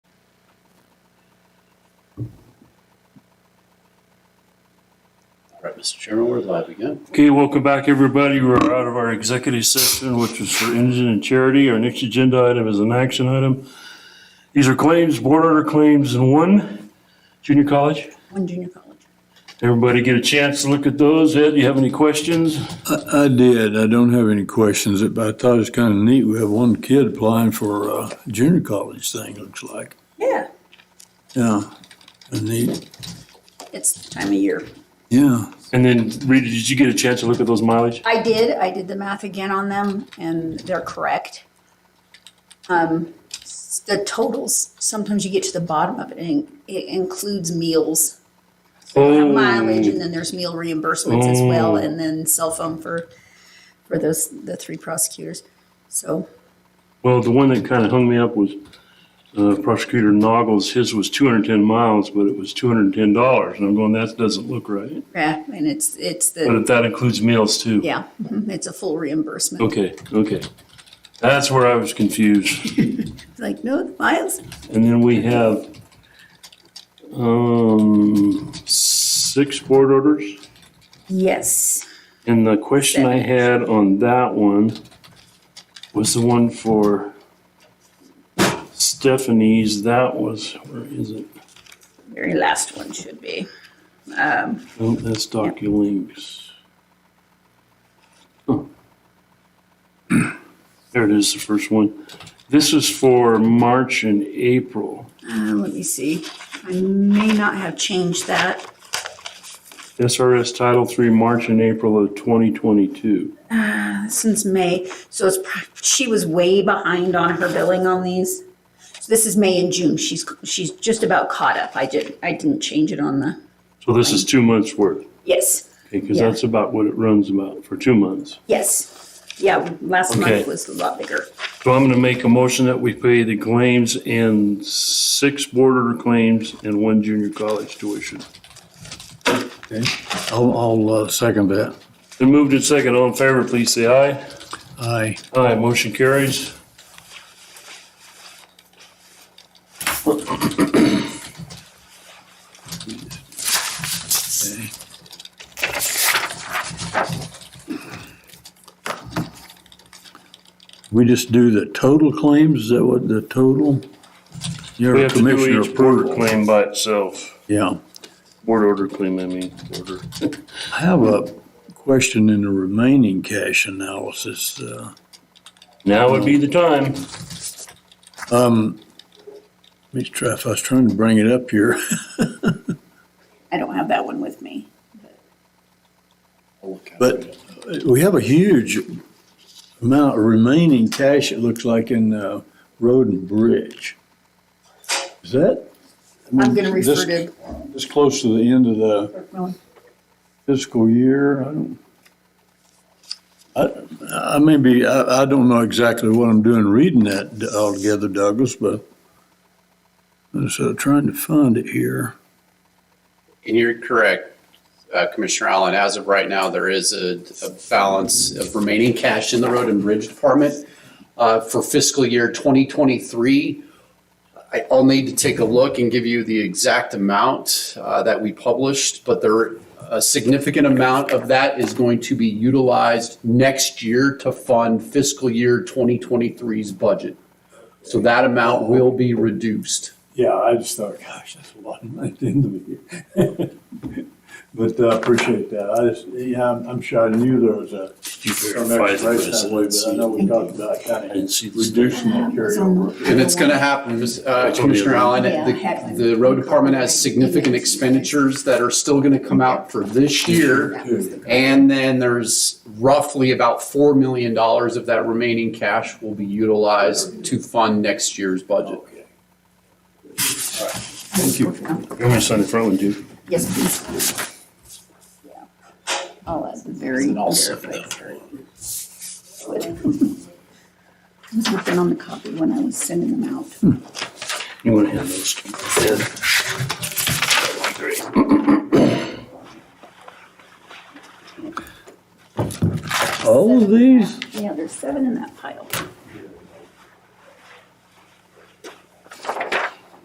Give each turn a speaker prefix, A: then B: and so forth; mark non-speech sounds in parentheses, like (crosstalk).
A: All right, Mr. Chairman, we're live again.
B: Okay, welcome back, everybody. We're out of our executive session, which is for engine and charity. Our next agenda item is an action item. These are claims, board order claims in one, junior college.
C: one junior college.
B: Everybody get a chance to look at those. Ed, you have any questions?
D: I did. I don't have any questions, but I thought it was kind of neat. We have one kid applying for a junior college thing, looks like.
C: Yeah.
D: Yeah, neat.
C: It's the time of year.
D: Yeah,
B: And then, Rita, did you get a chance to look at those mileage?
C: I did, I did the math again on them and they're correct. Um, s- the totals, sometimes you get to the bottom of it and it includes meals. uh,
B: Oh,
C: Mileage and then there's meal reimbursements as well and then cell phone for, for those, the three prosecutors. So,
B: Well, the one that kind of hung me up was uh, Prosecutor Noggles. His was 210 miles, but it was $210. And I'm going, that doesn't look right.
C: yeah, and it's, it's the,
B: But that includes meals too.
C: yeah, mhm, it's a full reimbursement.
B: Okay, okay. That's where I was confused.
C: Like, no, the miles,
B: And then we have, um, six board orders.
C: yes.
B: And the question I had on that one was the one for Stephanie's. That was, where is it?
C: Very last one should be.
B: Oh, that's DocuLinks. Huh. There it is, the first one. This is for March and April.
C: Uh, let me see. I may not have changed that.
B: SRS Title III, March and April of 2022.
C: since May, so it's, pr- she was way behind on her billing on these. So This is May and June, she's, she's just about caught up, I didn't, I didn't change it on the,
B: So this is two months' worth,
C: yes,
B: because
C: Yeah.
B: that's about what it runs about for two months.
C: yes. Yeah, last
B: Okay.
C: month was a lot bigger.
B: So I'm going to make a motion that we pay the claims and six board order claims and one junior college tuition.
D: okay. I'll, I'll uh, second that.
B: Then moved in second, all in favor, please say aye.
D: Aye.
B: Aye, motion carries.
D: Okay. We just do the total claims? Is that what the total? You're
B: We
D: a
B: have to do
D: commissioner
B: each board order
D: approval.
B: claim by itself.
D: Yeah.
B: Board order claim, I mean, order.
D: I have a question in the remaining cash analysis. uh,
B: Now would be the time.
D: Let me try, if I was trying to bring it up here,
C: I don't have that one with me.
A: I'll look at
D: But-
A: it.
D: we have a huge amount of remaining cash, it looks like, in uh, road and bridge. Is that? I mean,
C: I'm gonna refer
D: this-
C: to,
D: This close to the end of the
C: well,
D: fiscal year, I don't, I, I may be, I, I don't know exactly what I'm doing reading that altogether, Douglas, but I'm so trying to find it here.
A: And you're correct, uh, Commissioner Allen, as of right now, there is a, a balance of remaining cash in the road and bridge department. Uh, for fiscal year 2023, I, I'll need to take a look and give you the exact amount, uh, that we published, but there, a significant amount of that is going to be utilized next year to fund fiscal year 2023's budget. So that amount will be reduced.
D: Yeah, I just thought, gosh, that's a lot of money at the end of the year. (laughs) But I appreciate that. I just, yeah, I'm, I'm sure I knew there was a.
B: You
D: some
B: verify the
D: extra race that way,
B: residency.
D: But I know we talked about kind
B: didn't
D: of
B: see the-
D: reducing that carryover.
A: And it's gonna happen, Ms. uh, Commissioner Allen.
C: Yeah,
A: The,
C: heck.
A: the road department has significant expenditures that are still gonna come out for this year.
C: that was the-
A: And then there's roughly about four million dollars of that remaining cash will be utilized to fund next year's budget.
D: Thank you.
B: I'm going to sign the front one, too.
C: yes, please. Yeah. Oh, that's the very. verified. (laughs) I was looking on the copy when I was sending them out.
B: You want to hand those to Ed? That'd be Great.
D: All of these?
C: Yeah, there's seven in that pile.